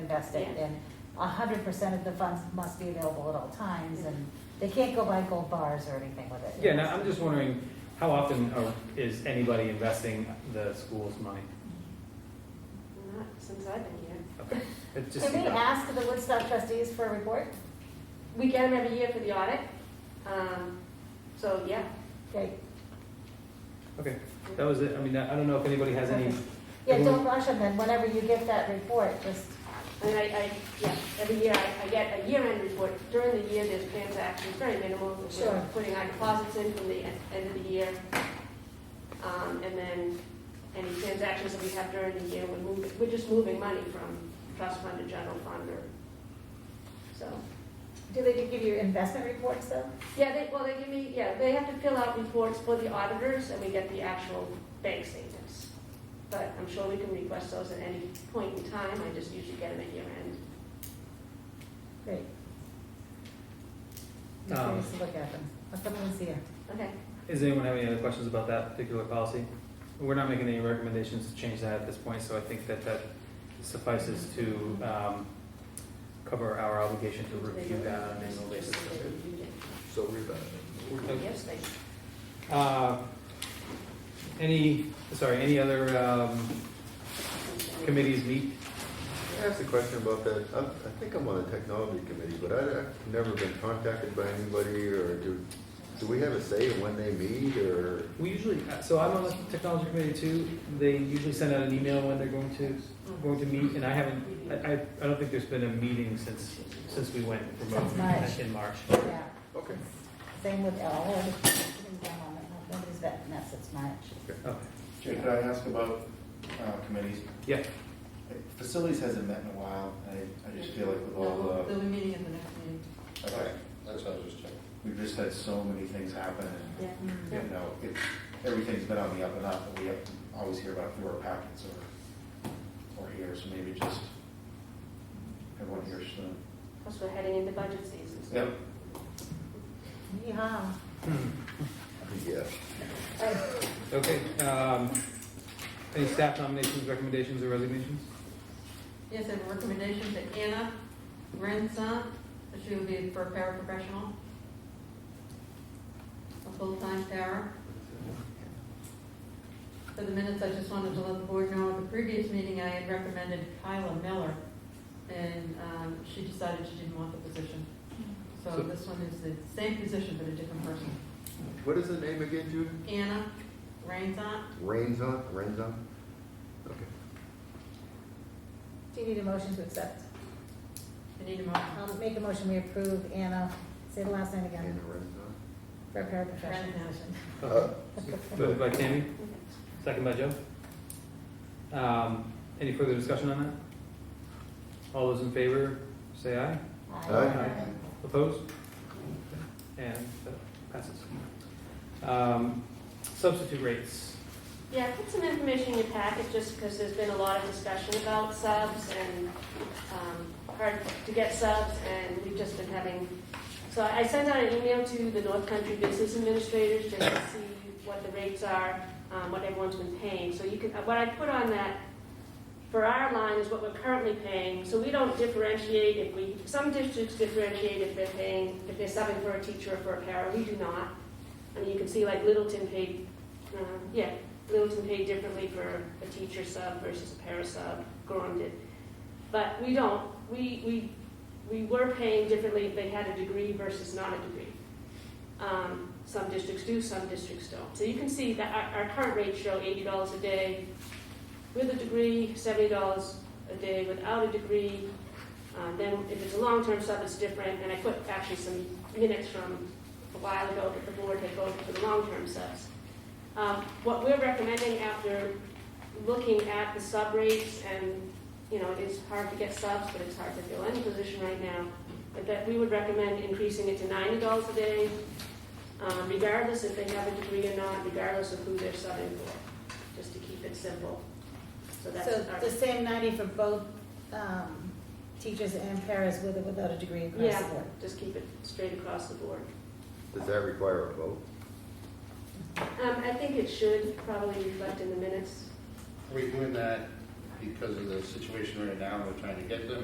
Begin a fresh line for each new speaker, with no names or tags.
invest it
Yeah.
in. A hundred percent of the funds must be available at all times, and they can't go buy gold bars or anything with it.
Yeah, now, I'm just wondering, how often are- is anybody investing the school's money?
Not since I've been here.
Okay, It's just.
Can we ask the Woodstock trustees for a report?
We get them every year for the audit. Um, so, yeah.
Okay,
Okay, that was it, I mean, I I don't know if anybody has any,
yeah,
Mhm.
don't rush them, then whenever you get that report, just,
I mean, I, I, yeah, every year I, I get a year-end report. During the year, there's transactions, very minimal. We're
Sure.
Putting our deposits in from the en- end of the year. Um, and then any transactions that we have during the year, we're moving, we're just moving money from trust fund to general fund or, so.
do they give you investment reports though?
Yeah, they, well, they give me, yeah, they have to fill out reports for the auditors, and we get the actual bank statements. But I'm sure we can request those at any point in time, I just usually get them at year end.
Great. I'm
Um,
curious to look at them, I'll come and see you.
Okay,
does anyone have any other questions about that particular policy? We're not making any recommendations to change that at this point, so I think that that suffices to um, cover our obligation to review that on an annual basis.
So rebound.
Okay.
Yes, they,
Uh, Any, sorry, any other um, committees meet?
I asked a question about that. I, I think I'm on the technology committee, but I, I've never been contacted by anybody or do, do we have a say in when they meet or?
We usually, so I'm on the technology committee too. They usually send out an email when they're going to, going to meet, and I haven't, I, I I don't think there's been a meeting since, since we went remote
Since March.
in March.
Yeah,
Okay.
same with L, nobody's that mess, it's March.
Okay.
Jay, could I ask about uh, committees?
Yeah,
Facilities hasn't met in a while, and I, I just feel like with all
They'll be meeting at the next meeting.
the, okay,
That's what I was just checking.
we've just had so many things happen,
yeah.
and, you know, it, everything's been on the up and up, but we have- always hear about fewer packets or, or here, so maybe just everyone here soon.
plus we're heading into budget season. so-
Yep.
Yeehaw.
Yeah.
okay. um, Any staff nominations, recommendations, or resignations?
Yes, I have a recommendation to Anna Renson, she will be for paraprofessional. A full-time para. For the minutes, I just wanted to let the board know, at the previous meeting, I had recommended Kyla Miller, and um, she decided she didn't want the position. So
So-
this one is the same position, but a different person.
What is the name again, Judy?
Anna Renson,
Rains on, rains on? Okay.
Do you need a motion to accept?
I need a motion.
I'll make a motion, we approve Anna, say the last name
Anna
again,
rains on?
for a paraprofessional.
Renson.
Uh,
Moved by Tammy, second by Joe. Um, Any further discussion on that? All those in favor, say aye.
Aye.
Opposed? And that passes. Um, Substitute rates.
Yeah, put some information in your packet, just because there's been a lot of discussion about subs and um, hard to get subs, and we've just been having, so I sent out an email to the North Country Business Administrators just to see what the rates are, um, what everyone's been paying. So you can, what I put on that for our line is what we're currently paying, so we don't differentiate if we, some districts differentiate if they're paying, if they're subbing for a teacher or for a para, we do not. I mean, you can see like Littleton paid, um, yeah, Littleton paid differently for a teacher sub versus a para sub, Gorham did. But we don't, we, we, we were paying differently if they had a degree versus not a degree. Um, some districts do, some districts don't. So you can see that our, our current rates show eighty dollars a day with a degree, seventy dollars a day without a degree. Um, then if it's a long-term sub, it's different, and I put actually some minutes from a while ago that the board had voted for the long-term subs. Um, What we're recommending after looking at the sub rates, and, you know, it's hard to get subs, but it's hard to fill any position right now, but that we would recommend increasing it to ninety dollars a day, um, regardless if they have a degree or not, regardless of who they're subbing for, just to keep it simple. So that's
So
our.
the same ninety for both, um, teachers and paras with or without a degree across the
Yeah.
board?
Just keep it straight across the board.
Does that require a vote?
Um, I think it should probably reflect in the minutes.
Are we doing that because of the situation right now, we're trying to get them,